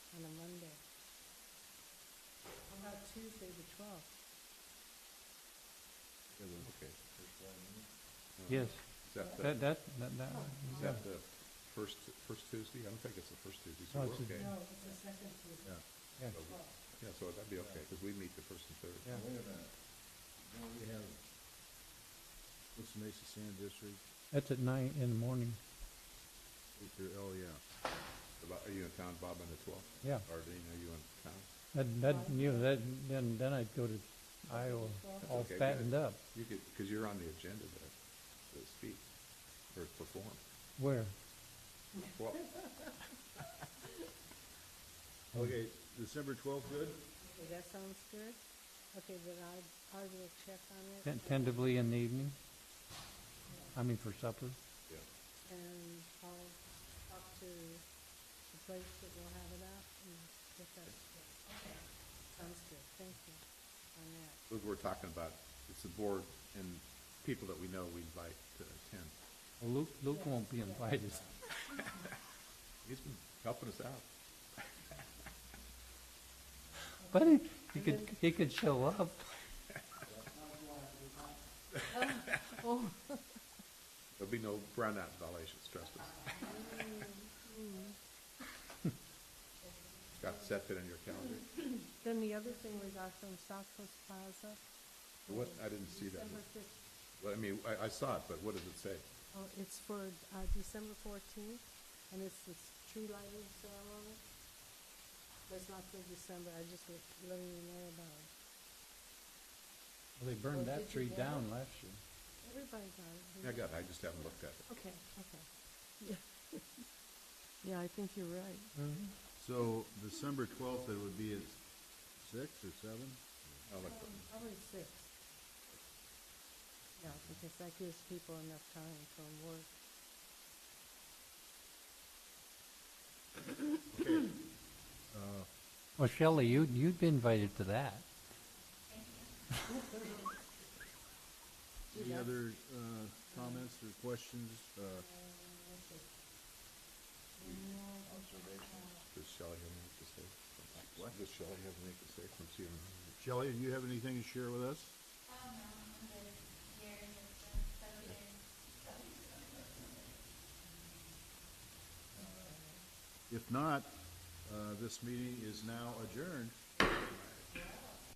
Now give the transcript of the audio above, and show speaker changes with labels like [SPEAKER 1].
[SPEAKER 1] on a Monday. How about Tuesday, the twelfth?
[SPEAKER 2] Okay.
[SPEAKER 3] Yes,
[SPEAKER 2] Is that the,
[SPEAKER 3] that, that, that, that,
[SPEAKER 2] is
[SPEAKER 3] yeah.
[SPEAKER 2] that the first, first Tuesday? I don't think it's the first Tuesday, so we're
[SPEAKER 3] No, Oh, it's the-
[SPEAKER 2] okay.
[SPEAKER 1] No, it's the second Tuesday,
[SPEAKER 2] Yeah,
[SPEAKER 3] yeah.
[SPEAKER 2] so we- yeah, so that'd be okay, because we meet the first and third.
[SPEAKER 3] Yeah.
[SPEAKER 4] Wait a minute. Now we have, what's the Mesa Sand District?
[SPEAKER 3] That's at nine in the morning,
[SPEAKER 4] Eight through, oh, yeah.
[SPEAKER 2] About- Are you in town, Bob, on the twelfth?
[SPEAKER 3] yeah.
[SPEAKER 2] Or Dean, are you in town?
[SPEAKER 3] That, that, you know, that, then, then I'd go to Iowa, all
[SPEAKER 2] Okay, good.
[SPEAKER 3] fattened up.
[SPEAKER 2] You could, because you're on the agenda to, to speak or perform.
[SPEAKER 3] Where?
[SPEAKER 2] Well,
[SPEAKER 4] Okay, December twelfth, good?
[SPEAKER 1] Okay, that sounds good? Okay, then I, I will check on it.
[SPEAKER 3] Ten- Tentatively in the evening? I mean, for supper?
[SPEAKER 2] yeah,
[SPEAKER 1] And I'll talk to the place that will have it out and get that. Okay. Sounds good, thank you on that.
[SPEAKER 2] what we're talking about, it's the board and people that we know we invite to attend.
[SPEAKER 3] Well, Luke, Luke won't be invited.
[SPEAKER 2] He's been helping us out.
[SPEAKER 3] But he, he could, he could show up.
[SPEAKER 1] Oh,
[SPEAKER 2] There'll be no brownout violations, trust us. Got set that in your calendar?
[SPEAKER 1] then the other thing we got from South Coast Plaza.
[SPEAKER 2] What, I didn't see that.
[SPEAKER 1] December fif-
[SPEAKER 2] Well, I mean, I, I saw it, but what does it say?
[SPEAKER 1] Oh, it's for, uh, December fourteenth, and it's this tree lighting ceremony. It's not for December, I just was letting you know about it.
[SPEAKER 3] They
[SPEAKER 1] burned that tree down
[SPEAKER 3] last year.
[SPEAKER 1] Everybody got it.
[SPEAKER 2] I got it, I just haven't looked at it.
[SPEAKER 1] Okay, okay. Yeah. Yeah, I think you're right.
[SPEAKER 3] Mm-hmm.
[SPEAKER 4] So December twelfth, it would be at six or seven?
[SPEAKER 2] I'll look.
[SPEAKER 1] Probably Um, six. Yeah, because that gives people enough time from work.
[SPEAKER 3] Well, Shelley, you, you'd be invited to that.
[SPEAKER 4] Any other, uh, comments or questions? Uh,
[SPEAKER 2] Does Shelley have anything to say? What? Does Shelley have anything to say from CNN?
[SPEAKER 4] Shelley, do you have anything to share with us? If not, uh, this meeting is now adjourned.